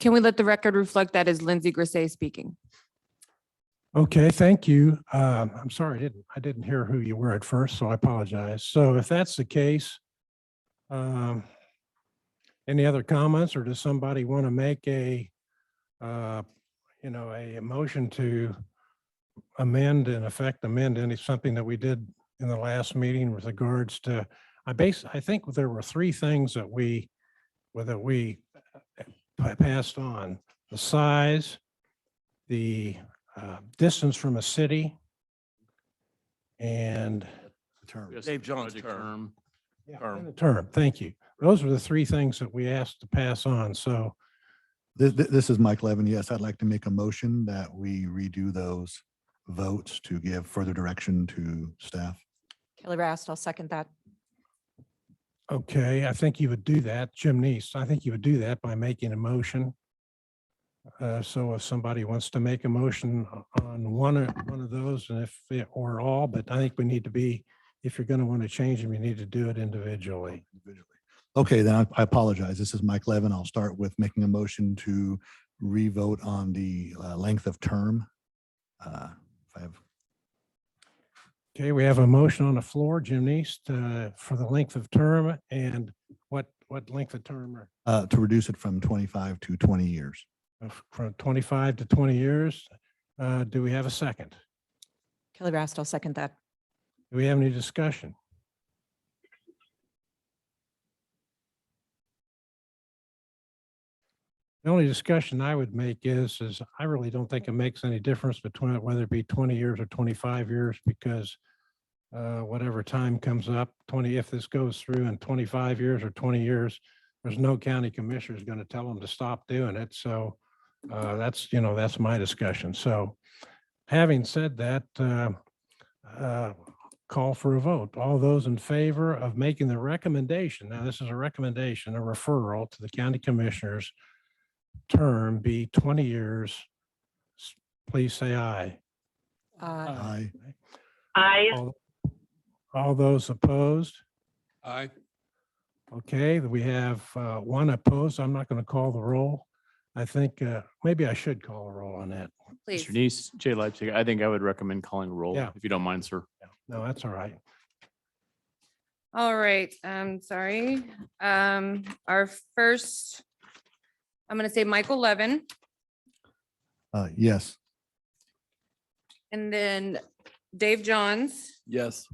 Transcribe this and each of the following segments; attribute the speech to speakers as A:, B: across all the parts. A: Can we let the record reflect that is Lindsay Grisay speaking?
B: Okay, thank you. Um, I'm sorry, I didn't, I didn't hear who you were at first, so I apologize. So if that's the case, um, any other comments or does somebody want to make a, uh, you know, a motion to amend and affect amend any, something that we did in the last meeting with regards to, I base, I think there were three things that we, well, that we uh, passed on, the size, the uh, distance from a city. And
C: term.
D: Dave John's term.
B: yeah,
D: Term.
B: and the term, thank you. Those were the three things that we asked to pass on. So
C: This, this is Mike Levin. Yes, I'd like to make a motion that we redo those votes to give further direction to staff.
E: Kelly Rast, I'll second that.
B: Okay, I think you would do that, Jim Neese. I think you would do that by making a motion. Uh, So if somebody wants to make a motion o- on one or one of those and if it- or all, but I think we need to be, if you're going to want to change them, you need to do it individually.
C: individually. Okay, then I- I apologize. This is Mike Levin. I'll start with making a motion to re-vote on the uh, length of term. Uh, If I have
B: Okay, we have a motion on the floor, Jim Neese, uh, for the length of term and what, what length of term are
C: uh, to reduce it from 25 to 20 years.
B: of- from 25 to 20 years. Uh, Do we have a second?
E: Kelly Rast, I'll second that.
B: Do we have any discussion? The only discussion I would make is, is I really don't think it makes any difference between whether it be 20 years or 25 years because uh, whatever time comes up, 20, if this goes through in 25 years or 20 years, there's no county commissioner is going to tell them to stop doing it. So uh, that's, you know, that's my discussion. So having said that, uh, uh, call for a vote. All those in favor of making the recommendation, now this is a recommendation, a referral to the county commissioners, term be 20 years, s- please say aye.
E: Uh,
C: Aye.
F: I
B: All all those opposed?
D: Aye.
B: Okay, we have uh, one opposed. I'm not going to call the roll. I think uh, maybe I should call a roll on that.
A: Please.
G: Mr. Neese, Jay Leipzig, I think I would recommend calling roll,
B: Yeah.
G: if you don't mind, sir.
B: No, that's all right.
A: All right, I'm sorry. Um, our first, I'm gonna say Michael Levin
C: Uh, Yes,
A: and then Dave Johns,
D: Yes.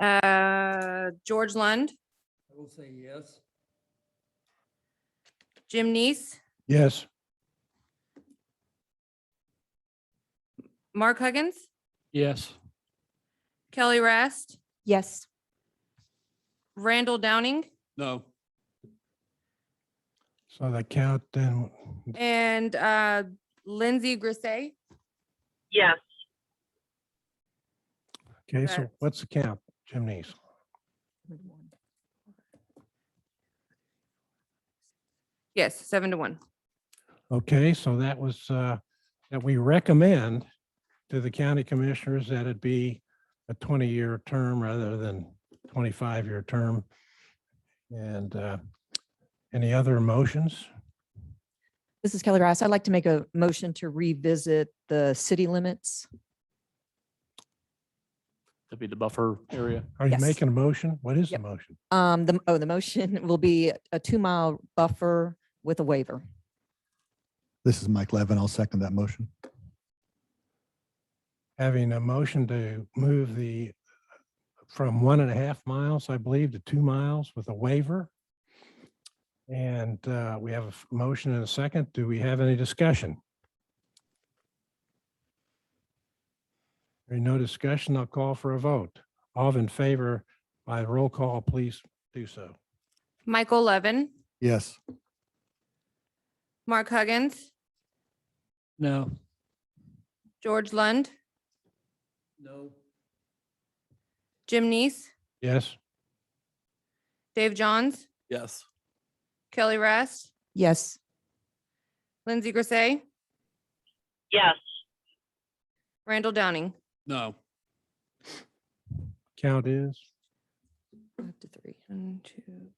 A: uh, George Lund,
H: I will say yes.
A: Jim Neese,
B: Yes.
A: Mark Huggins,
H: Yes.
A: Kelly Rast,
E: Yes,
A: Randall Downing,
D: No.
B: So the count then,
A: and, uh, Lindsay Grisay.
F: yes.
B: okay, so
A: Correct.
B: what's the count, Jim Neese?
A: Yes, seven to one.
B: Okay, so that was, uh, that we recommend to the county commissioners that it be a twenty-year term rather than twenty-five-year term. And, uh, any other motions?
E: this is Kelly Rast. I'd like to make a motion to revisit the city limits.
G: That'd be the buffer area.
B: Are you
E: Yes.
B: making a motion? What is the
E: Yep.
B: motion?
E: Um, the, oh, the motion will be a two-mile buffer with a waiver.
C: this is Mike Levin. I'll second that motion.
B: Having a motion to move the, from one and a half miles, I believe, to two miles with a waiver. And, uh, we have a f- motion and a second. Do we have any discussion? There no discussion. I'll call for a vote. All in favor by roll call, please do so.
A: Michael Levin,
C: Yes.
A: Mark Huggins,
H: No.
A: George Lund,
H: No.
A: Jim Neese,
B: Yes?
A: Dave Johns,
D: Yes.
A: Kelly Rast,
E: Yes,
A: Lindsay Grisay,
F: Yes.
A: Randall Downing.
D: No.
B: Count is?
E: up to three.
A: One, two,